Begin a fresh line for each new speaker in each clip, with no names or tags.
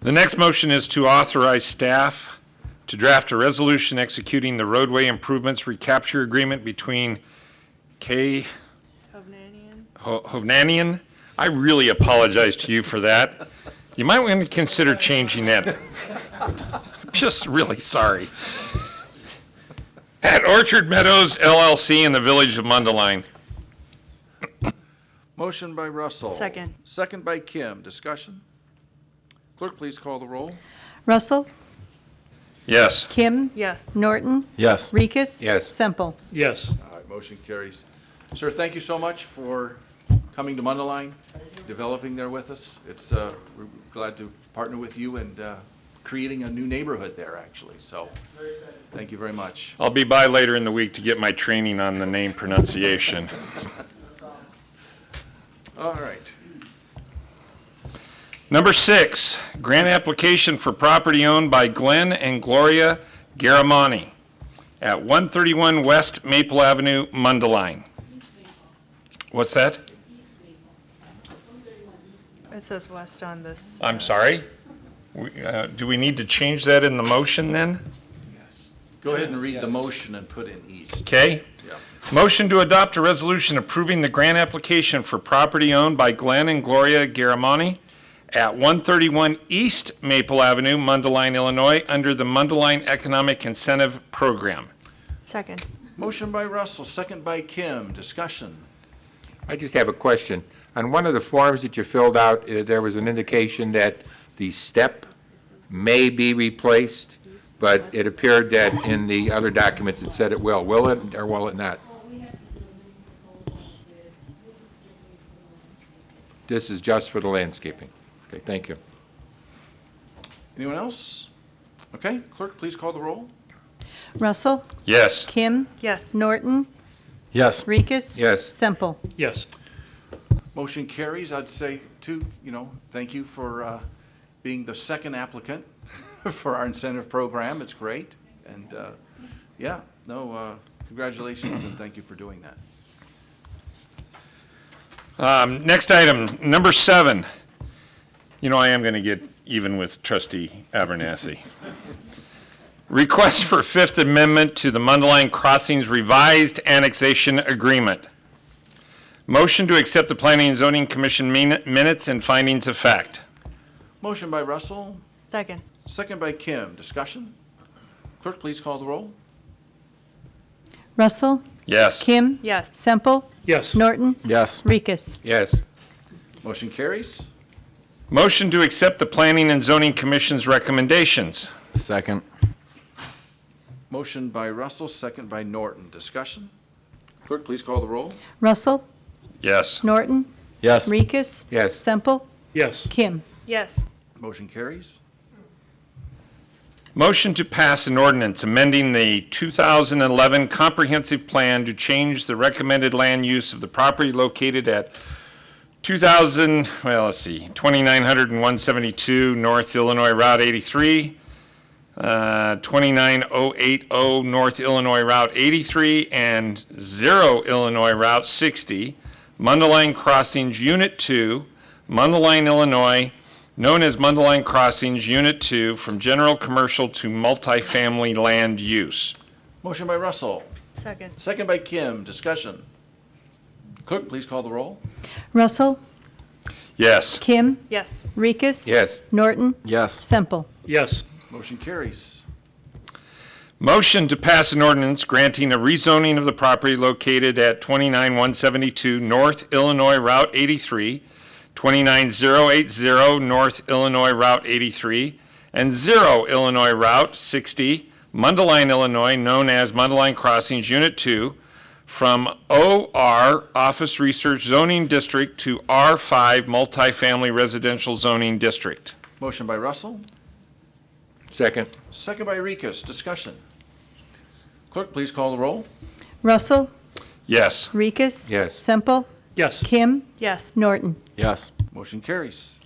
The next motion is to authorize staff to draft a resolution executing the roadway improvements recapture agreement between K. Ho- Hovnanian. I really apologize to you for that. You might want to consider changing that. Just really sorry. At Orchard Meadows LLC in the village of Mundaline.
Motion by Russell.
Second.
Second by Kim. Discussion? Clerk, please call the roll.
Russell,
Yes.
Kim,
Yes.
Norton,
Yes.
Rikus.
Yes.
Semple.
Yes.
All right, motion carries. Sir, thank you so much for coming to Mundaline, developing there with us. It's, uh, we're glad to partner with you and uh, creating a new neighborhood there, actually, so. Thank you very much.
I'll be by later in the week to get my training on the name pronunciation.
All right.
Number six, grant application for property owned by Glenn and Gloria Garamani at 131 West Maple Avenue, Mundaline. What's that?
It says west on this.
I'm sorry? We, uh, Do we need to change that in the motion then?
Go ahead and read the motion and put in east.
Okay?
Yeah.
Motion to adopt a resolution approving the grant application for property owned by Glenn and Gloria Garamani at 131 East Maple Avenue, Mundaline, Illinois, under the Mundaline Economic Incentive Program.
Second.
Motion by Russell, second by Kim. Discussion?
I just have a question. On one of the forms that you filled out, uh, there was an indication that the step may be replaced, but it appeared that in the other documents it said it will. Will it or will it not? This is just for the landscaping. Okay, thank you.
Anyone else? Okay, clerk, please call the roll.
Russell,
Yes.
Kim,
Yes.
Norton,
Yes.
Rikus.
Yes.
Semple.
Yes.
Motion carries. I'd say too, you know, thank you for uh, being the second applicant for our incentive program. It's great. And uh, yeah, no, uh, congratulations and thank you for doing that.
Um, Next item, number seven. You know, I am going to get even with trustee Abernathy. Request for Fifth Amendment to the Mundaline Crossings Revised Annexation Agreement. Motion to accept the Planning and Zoning Commission min- minutes and findings of fact.
Motion by Russell,
Second.
second by Kim. Discussion? Clerk, please call the roll.
Russell,
Yes.
Kim,
Yes.
Semple,
Yes.
Norton,
Yes.
Rikus.
Yes,
Motion carries.
Motion to accept the Planning and Zoning Commission's recommendations.
Second.
Motion by Russell, second by Norton. Discussion? Clerk, please call the roll.
Russell,
Yes.
Norton,
Yes.
Rikus.
Yes.
Semple,
Yes.
Kim.
Yes.
Motion carries.
Motion to pass an ordinance amending the 2011 comprehensive plan to change the recommended land use of the property located at 2000, well, let's see, 2900 and 172 North Illinois Route 83, uh, 29080 North Illinois Route 83, and 0 Illinois Route 60, Mundaline Crossings Unit 2, Mundaline, Illinois, known as Mundaline Crossings Unit 2 from general commercial to multifamily land use.
Motion by Russell,
Second.
second by Kim. Discussion? Clerk, please call the roll.
Russell,
Yes.
Kim,
Yes.
Rikus.
yes.
Norton,
Yes.
Semple.
Yes.
Motion carries.
Motion to pass an ordinance granting a rezoning of the property located at 29172 North Illinois Route 83, 29080 North Illinois Route 83, and 0 Illinois Route 60, Mundaline, Illinois, known as Mundaline Crossings Unit 2, from OR Office Research Zoning District to R5 Multifamily Residential Zoning District.
Motion by Russell,
Second,
second by Rikus. Discussion. Clerk, please call the roll.
Russell,
Yes.
Rikus.
Yes.
Semple,
Yes.
Kim,
Yes.
Norton.
Yes.
Motion carries.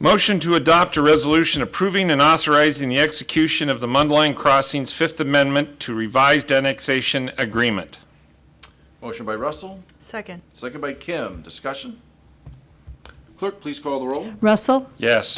Motion to adopt a resolution approving and authorizing the execution of the Mundline Crossings Fifth Amendment to Revised Annexation Agreement.
Motion by Russell,
Second.
second by Kim. Discussion. Clerk, please call the roll.
Russell,
Yes.